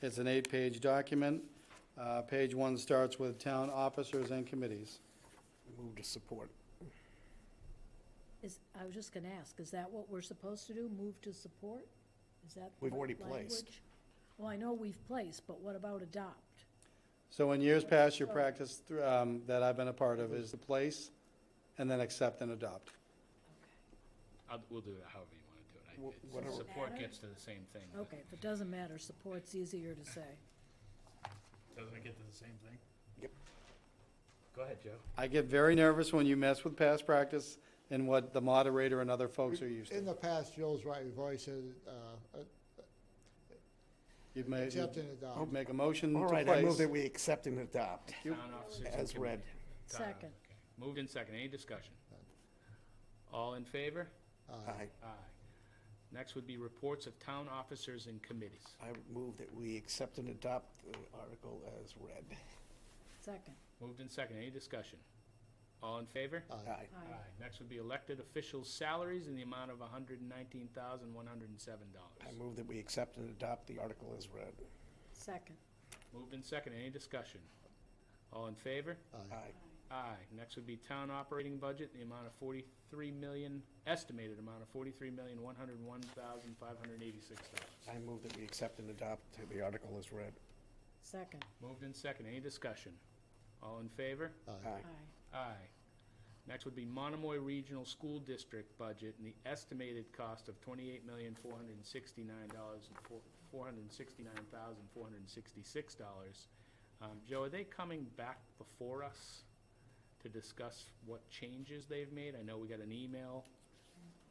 It's an eight-page document. Uh, Page one starts with town officers and committees. Move to support. Is, I was just gonna ask, is that what we're supposed to do, move to support? Is that? We've what already placed. language? Well, I know we've placed, but what about adopt? So in years past, your practice thr- um, that I've been a part of is to place and then accept and adopt. I'll, we'll do it however you wanna do it. I- Wha- it's- whatever. Support gets to the same thing. but- Okay, if it doesn't matter, support's easier to say. Doesn't it get to the same thing? Yep. Go ahead, Joe. I get very nervous when you mess with past practice and what the moderator and other folks are used In to. the past, Joel's right, we've always said, uh, uh, You've made, accept and adopt. you'd make a motion All to right, I move place. that we accept and adopt. You- Town officers and As read. committee- town officers, Second, okay. Moved in second. Any discussion? All in favor? I, Aye. Next would be reports of town officers and committees. I move that we accept and adopt the article as read. second, Moved in second. Any discussion? All in favor? Aye. aye, Next would be elected officials' salaries in the amount of hundred and nineteen thousand, one hundred and seven I dollars. move that we accept and adopt the article as read. second, Moved in second. Any discussion? All in favor? Aye. Aye. Next would be town operating budget, the amount of forty-three million, estimated amount of forty-three million, one hundred and one thousand, five hundred and eighty-six dollars. I move that we accept and adopt the article as read. second, Moved in second. Any discussion? All in favor? Aye. aye, Aye. Next would be Monomoy Regional School District budget and the estimated cost of twenty-eight million, four hundred and sixty-nine dollars and four, four hundred and sixty-nine thousand, four hundred and sixty-six dollars. Um, Joe, are they coming back before us to discuss what changes they've made? I know we got an email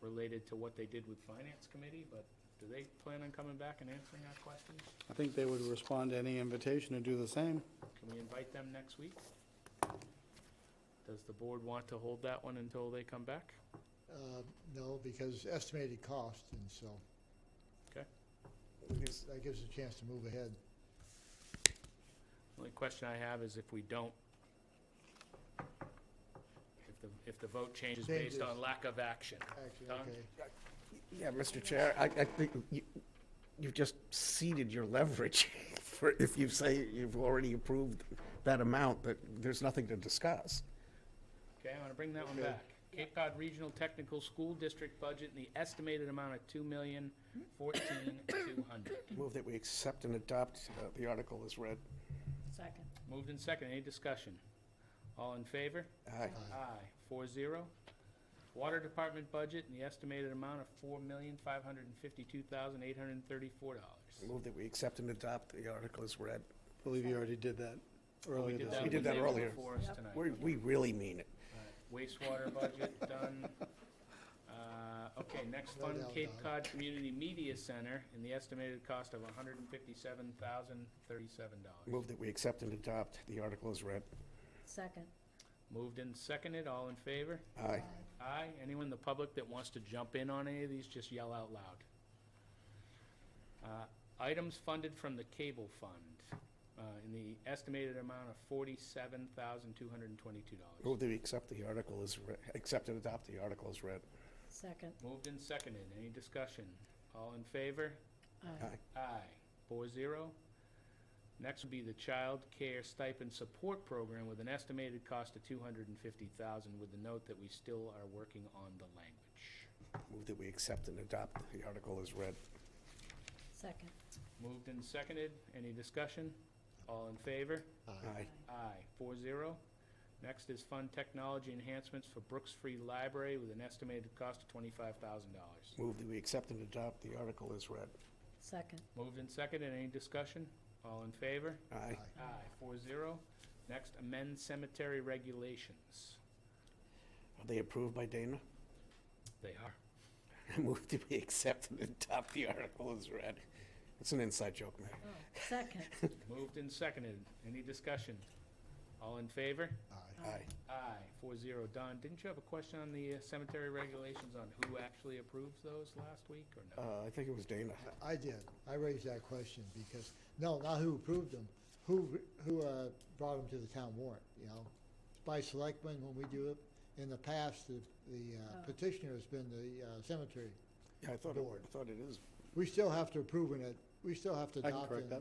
related to what they did with Finance Committee, but do they plan on coming back and answering our questions? I think they would respond to any invitation and do the same. Can we invite them next week? Does the board want to hold that one until they come back? Uh, No, because estimated cost, and so Is- that gives us a chance to move ahead. Only question I have is if we don't, if the, if the vote changes based on Changes. lack of action. Actually, Done. okay. Yeah, Mr. Chair, I, I think you, you've just ceded your leverage for, if you say you've already approved that amount, that there's nothing to discuss. Okay, I'm gonna bring that one Okay. back. Cape Cod Regional Technical School District budget and the estimated amount of two million, fourteen, two hundred. Move that we accept and adopt uh, the article as read. second, Moved in second, any discussion? All in favor? Aye. Aye, four zero. Water Department budget and the estimated amount of four million, five hundred and fifty-two thousand, eight hundred and thirty-four dollars. Move that we accept and adopt the article as read. I believe you already did that We earlier did this We that week. did when that they were earlier. before us tonight. We, we really mean it. Wastewater budget done. Uh, Okay, next No fund, doubt, Cape Don. Cod Community Media Center, in the estimated cost of hundred and fifty-seven thousand, thirty-seven dollars. Move that we accept and adopt the article as read. second, Moved and seconded, all in favor? Aye. Aye. Anyone in the public that wants to jump in on any of these, just yell out loud. Uh, Items funded from the cable fund, uh, in the estimated amount of forty-seven thousand, two hundred and twenty-two dollars. Move that we accept the article as, re- accept and adopt the article as read. second, Moved and seconded. Any discussion? All in favor? aye, Aye. Four zero. Next would be the Child Care Stipend Support Program with an estimated cost of two hundred and fifty thousand, with the note that we still are working on the language. Move that we accept and adopt the article as read. second, Moved and seconded. Any discussion? All in favor? Aye. Aye. Four zero. Next is Fund Technology Enhancements for Brooks Free Library with an estimated cost of twenty-five thousand dollars. Move that we accept and adopt the article as read. second, Moved and seconded. Any discussion? All in favor? Aye. Aye, four zero. Next, amend cemetery regulations. Are they approved by Dana? They are. Move that we accept and adopt the article as read. It's an inside joke, man. oh, second, Moved and seconded. Any discussion? All in favor? Aye. Aye. Aye, four zero. Don, didn't you have a question on the uh, cemetery regulations on who actually approves those last week or no? Uh, I think it was Dana. I did, I raised that question because, no, not who approved them, who, who uh, brought them to the town warrant, you know? It's By selectmen, when we do it, in the past, the the uh, Oh. petitioner has been the uh, cemetery Yeah, I thought, it- I thought it is. We still have to approve it at we still have to I can adopt correct it. that.